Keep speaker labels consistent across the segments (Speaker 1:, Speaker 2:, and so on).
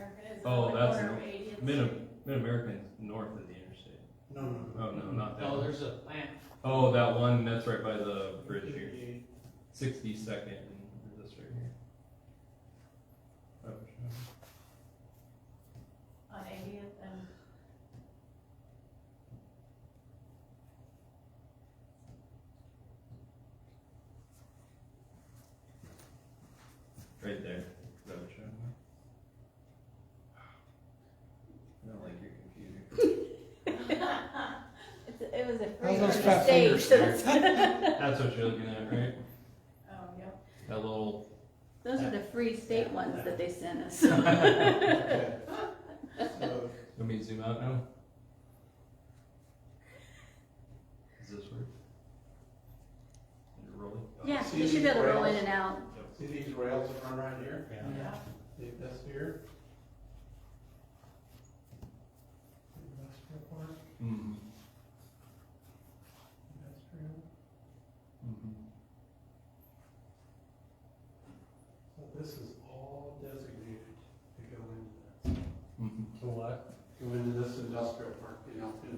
Speaker 1: It's
Speaker 2: Oh,
Speaker 1: only
Speaker 2: that's
Speaker 1: quarter of eight. It's-
Speaker 2: Mid, Mid-American's north of the interstate.
Speaker 3: No, no,
Speaker 2: Oh, no, not that
Speaker 4: No,
Speaker 2: one.
Speaker 4: there's a plant.
Speaker 2: Oh, that one, that's right by the
Speaker 3: no.
Speaker 2: bridge here. Sixty-second, this right here. Oh, sure.
Speaker 1: On eightieth and.
Speaker 2: Right there. Is that what you're talking about? I don't like your computer.
Speaker 5: It's, it was a
Speaker 3: How's
Speaker 5: free
Speaker 3: those
Speaker 5: for
Speaker 3: fat
Speaker 5: the stage,
Speaker 3: fingers
Speaker 5: so that's-
Speaker 2: That's what you're looking at, right?
Speaker 1: Oh, yep.
Speaker 2: That little,
Speaker 5: those are the free state ones that they sent us.
Speaker 3: Okay. So,
Speaker 2: let me to zoom out now. Does this work? Is it rolling?
Speaker 5: Yeah,
Speaker 3: See
Speaker 5: you should be able to roll in
Speaker 3: these
Speaker 5: and out.
Speaker 3: See these rails that run right here?
Speaker 1: Yeah.
Speaker 3: See this here? Industrial park,
Speaker 2: Mm-hmm.
Speaker 3: industrial,
Speaker 2: Mm-hmm.
Speaker 3: so this is all designated to go into that.
Speaker 2: Mm-hmm.
Speaker 4: To what?
Speaker 3: Go into this industrial park, you know, in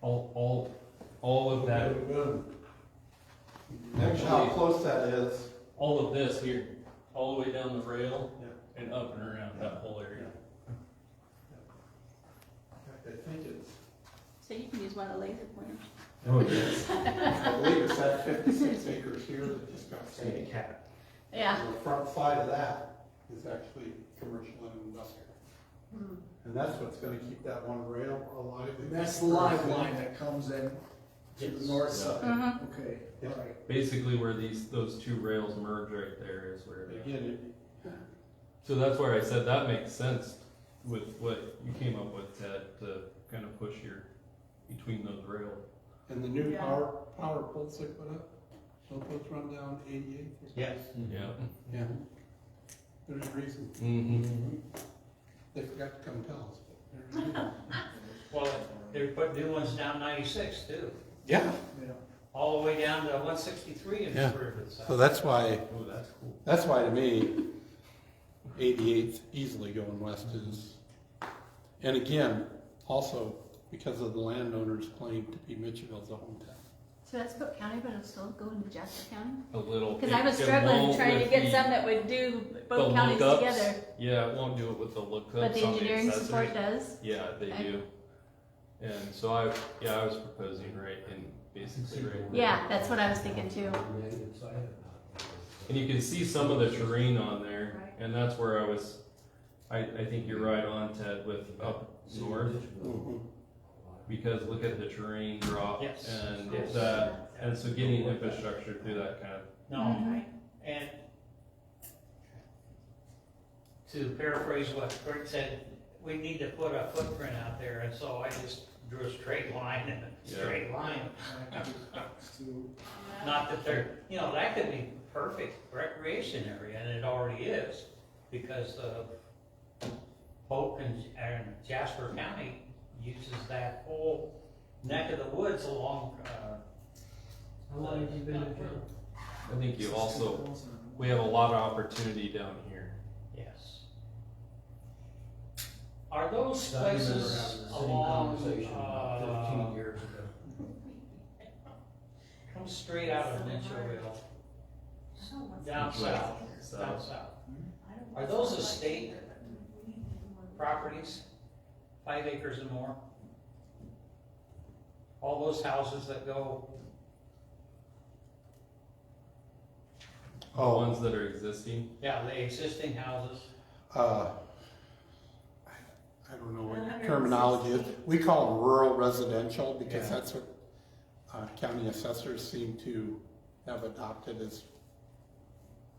Speaker 2: All, all, all of that,
Speaker 3: Imagine how close that is.
Speaker 2: all of this here, all the way down the rail
Speaker 3: Yeah.
Speaker 2: and up and around that whole area.
Speaker 3: In fact, I think it's,
Speaker 5: So you can use one of the laser pointers.
Speaker 2: Oh, yes.
Speaker 3: I believe it's that fifty-six acres here that just got saved.
Speaker 5: Yeah.
Speaker 3: The front side of that is actually commercial and industrial.
Speaker 1: Hmm.
Speaker 3: And that's what's gonna keep that one rail alive.
Speaker 6: And that's the live line that comes in to the north side.
Speaker 5: Mm-hmm.
Speaker 6: Okay,
Speaker 3: Yeah.
Speaker 6: all right.
Speaker 2: Basically where these, those two rails merge right there is where, the-
Speaker 3: Again, it-
Speaker 2: so that's where I said that makes sense with what you came up with, Ted, to kind of push your, between those rails.
Speaker 3: and the new
Speaker 1: Yeah.
Speaker 3: power, power poles they put up, don't those run down eighty-eight?
Speaker 4: Yes.
Speaker 5: Mm-hmm.
Speaker 2: Yeah.
Speaker 3: Yeah. There's a reason,
Speaker 2: Mm-hmm.
Speaker 3: they forgot to compel us. but there's a reason.
Speaker 4: Well, they're putting new ones down ninety-six too,
Speaker 3: Yeah,
Speaker 6: Yeah.
Speaker 4: all the way down to one sixty-three in
Speaker 3: Yeah.
Speaker 4: Riverside.
Speaker 3: so that's why,
Speaker 2: Oh, that's cool.
Speaker 3: that's why to me, eighty-eight easily going west is, and again, also because of the landowner's claim to be Mitchellville's hometown.
Speaker 5: So that's Cook County, but it'll still go into Jasper County?
Speaker 2: A little.
Speaker 5: Because I was
Speaker 2: it
Speaker 5: struggling
Speaker 2: won't
Speaker 5: trying to
Speaker 2: with
Speaker 5: get
Speaker 2: the-
Speaker 5: some that would do
Speaker 2: the
Speaker 5: both counties
Speaker 2: lookups.
Speaker 5: together.
Speaker 2: Yeah, it won't do it with the lookups
Speaker 5: But the
Speaker 2: on
Speaker 5: engineering
Speaker 2: accessories.
Speaker 5: support does.
Speaker 2: Yeah, they
Speaker 5: Okay.
Speaker 2: do. And so I, yeah, I was proposing right in basically right there.
Speaker 5: Yeah, that's what I was thinking too.
Speaker 2: And you can see some of the terrain on there,
Speaker 1: Right.
Speaker 2: and that's where I was. I, I think you're right on, Ted, with up north
Speaker 6: Mm-hmm.
Speaker 2: because look at the terrain drop
Speaker 4: Yes.
Speaker 2: and
Speaker 4: Yes.
Speaker 2: that, and so getting infrastructure through that kind of.
Speaker 5: Mm-hmm.
Speaker 4: No, and to paraphrase what Kurt said, we need to put a footprint out there, and so I just drew a straight line and a
Speaker 2: Yeah.
Speaker 4: straight line.
Speaker 6: So,
Speaker 1: Yeah.
Speaker 4: Not that there, you know, that could be perfect recreation area, and it already is, because, uh, Polk and, and Jasper County uses that whole neck of the woods along, uh. How long have you been in
Speaker 2: I think you also we have a lot of opportunity down here.
Speaker 4: Yes. Are those
Speaker 7: I remember having the
Speaker 4: places
Speaker 7: same
Speaker 4: along,
Speaker 7: conversation about Fifteen
Speaker 4: uh,
Speaker 7: years ago.
Speaker 4: come straight out of Mitchellville,
Speaker 1: I don't want-
Speaker 4: down south, down south?
Speaker 1: I don't
Speaker 4: Are
Speaker 1: want
Speaker 4: those
Speaker 1: something like
Speaker 4: estate
Speaker 1: that, but we need to do more.
Speaker 4: properties, five acres and more. All those houses that go,
Speaker 2: The
Speaker 3: Oh,
Speaker 2: ones that are existing.
Speaker 4: yeah, the existing houses,
Speaker 3: uh, I I don't know what terminology is. We call them rural residential because
Speaker 4: Yeah.
Speaker 3: that's what uh, county assessors seem to have adopted as,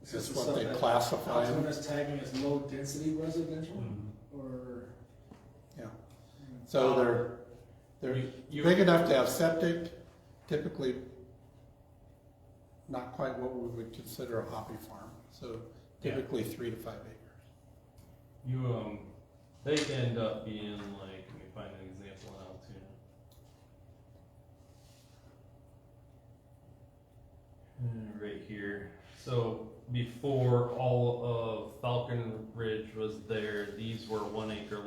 Speaker 6: Is
Speaker 3: as
Speaker 6: this
Speaker 3: what they
Speaker 6: something
Speaker 3: classify them.
Speaker 6: Altona's tagging as low density residential or?
Speaker 3: So they're, they're
Speaker 2: You- you-
Speaker 3: big enough to have septic, typically not quite what we would consider a hobby farm. So
Speaker 2: Yeah.
Speaker 3: typically three to five acres.
Speaker 2: You um, they end up being like. Let me find an example in Altoona. Uh, Right here. So before all of Falcon Ridge was there, these were one acre